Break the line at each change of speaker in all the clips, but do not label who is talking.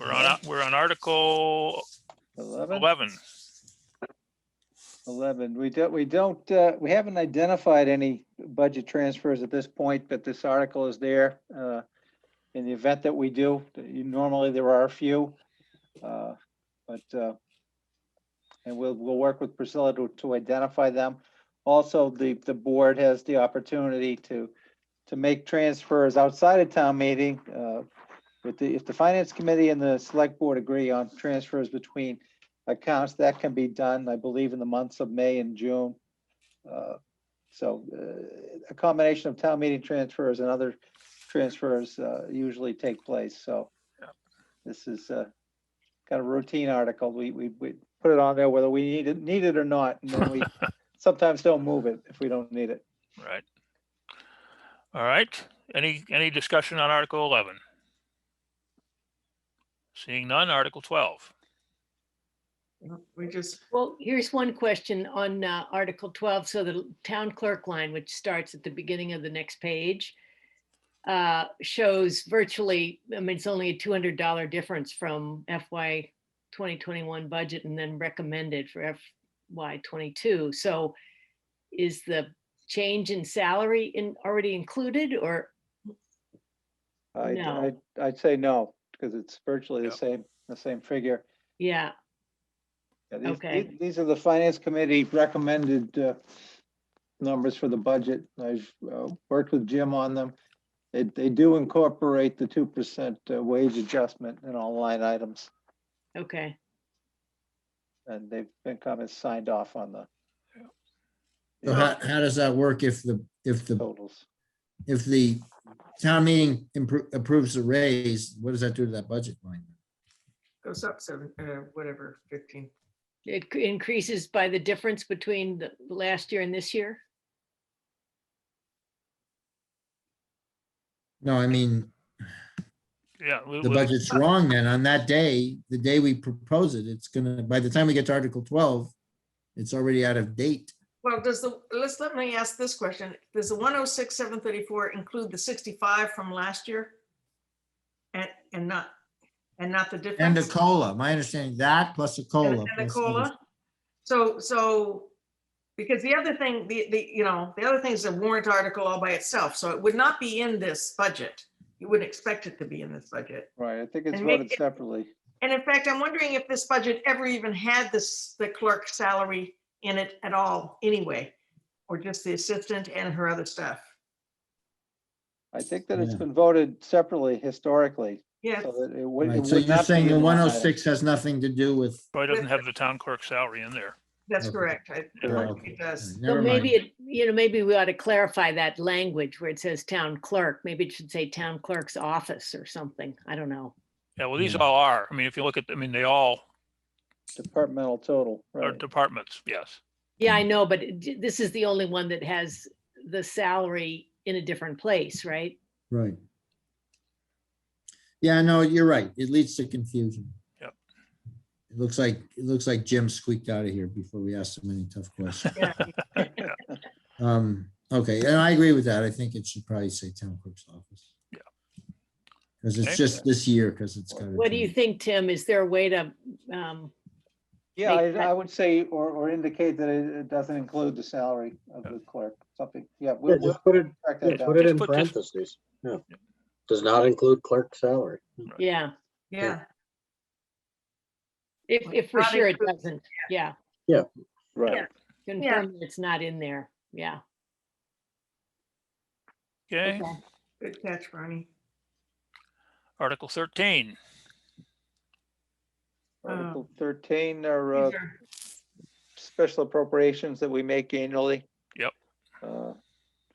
uh, we're on Article
Eleven?
eleven.
Eleven. We don't, we don't, uh, we haven't identified any budget transfers at this point, but this article is there. uh, In the event that we do, You- normally there are a few. uh, But, uh, and we'll, we'll work with Priscilla to, to identify them. Also, the, the board has the opportunity to, to make transfers outside of town meeting. uh, With the, if the finance committee and the select board agree on transfers between accounts. That can be done, I believe, in the months of May and June. Uh, So uh, a combination of town meeting transfers and other transfers uh, usually take place, so
Yep.
this is uh, kind of routine article. We, we, we put it on there whether we need it, need it or not, and then we sometimes don't move it if we don't need it.
Right. All right, any, any discussion on Article eleven? Seeing none, Article twelve.
We just,
Well, here's one question on uh, Article 12, so the town clerk line, which starts at the beginning of the next page, uh, shows virtually, I mean, it's only a $200 difference from FY 2021 budget and then recommended for FY 22. So is the change in salary in, already included or,
I'd,
No.
I'd- I'd say no, because it's virtually the
Yep.
same, the same figure.
yeah,
Yeah, these-
Okay.
these- These are the finance committee recommended uh, numbers for the budget. I've uh, worked with Jim on them. They, they do incorporate the two percent uh, wage adjustment in all line items,
okay.
and they've been kind of signed off on the
So how, how does that work if the, if the,
totals.
if the town meeting appro- approves the raise, what does that do to that budget line?
goes up seven, uh, whatever, fifteen.
It c- increases by the difference between the last year and this year?
No, I mean,
Yeah. we-
the
we-
budget's
uh,
wrong then. On that day, the day we propose it, it's gonna, by the time we get to Article twelve, it's already out of date.
Well, does the, let's, let me ask this question. Does the one oh six, seven thirty-four include the sixty-five from last year? And, and not, and not the difference?
And a COLA, my understanding, that plus a
And
COLA.
and the
plus others.
COLA? So, so, because the other thing, the, the, you know, the other thing is a warrant article all by itself, so it would not be in this budget. You wouldn't expect it to be in this budget.
Right, I think it's
And make
voted
it-
separately.
And in fact, I'm wondering if this budget ever even had this, the clerk salary in it at all anyway, or just the assistant and her other stuff.
I think that it's
Yeah.
been voted separately historically,
Yeah,
Oh,
so that it would. it
Right, so
would
you're
not be
saying
in
the
line
one oh
item.
six has nothing to do with,
Probably doesn't have the town clerk salary in there.
that's
Okay.
correct. I-
Yeah, Mm-hmm. okay.
It does.
So
never
maybe,
mind.
it you know, maybe we ought to clarify that language where it says town clerk. Maybe it should say town clerk's office or something. I don't know.
Yeah, well, these
Yeah.
all are. I mean, if you look at, I mean, they all
Departmental total,
are
right.
departments, yes.
Yeah,
Hmm.
I know, but it d- this is the only one that has the salary in a different place, right?
Right. Yeah, no, you're right. It leads to confusion.
Yep.
It looks like, it looks like Jim squeaked out of here before we asked him any tough questions.
Yeah.
Um, okay, and I agree with that. I think it should probably say town clerk's office.
Yeah.
Because
Okay.
it's just this year, because it's got.
What do you think, Tim? Is there a way to, um,
Yeah,
make
I,
that-
I would say, or, or indicate that it, it doesn't include the salary of the clerk, something, yeah.
Yeah,
we'll- we'll
just put it,
track
yeah,
that
put
down.
it
Just
in
put this-
parentheses, yeah. Does not include clerk salary.
yeah,
Yeah,
if, if for
Not
sure it
included,
doesn't, yeah.
Right.
Confirm that it's not in there, yeah.
Okay,
okay.
good catch, Bernie.
Article thirteen.
Article thirteen are uh,
Uh, These are-
special appropriations that we make annually.
Yep.
Uh,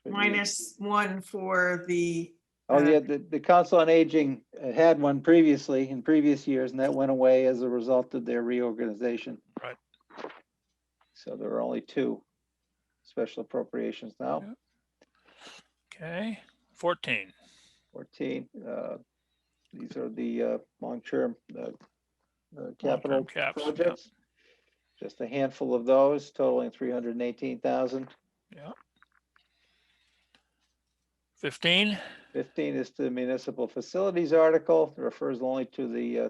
we-
Minus uh, one for the,
Oh, yeah, the, the Council on Aging had one previously in previous years and that went away as a result of their reorganization.
Right.
So there are only two special appropriations now.
Yeah. Okay, fourteen.
14. uh, These are the uh, long-term uh, uh,
Long-term
capital
caps, yeah.
projects. Just a handful of those totaling 318,000.
Fifteen.
15 is the municipal facilities article, It refers only to the uh,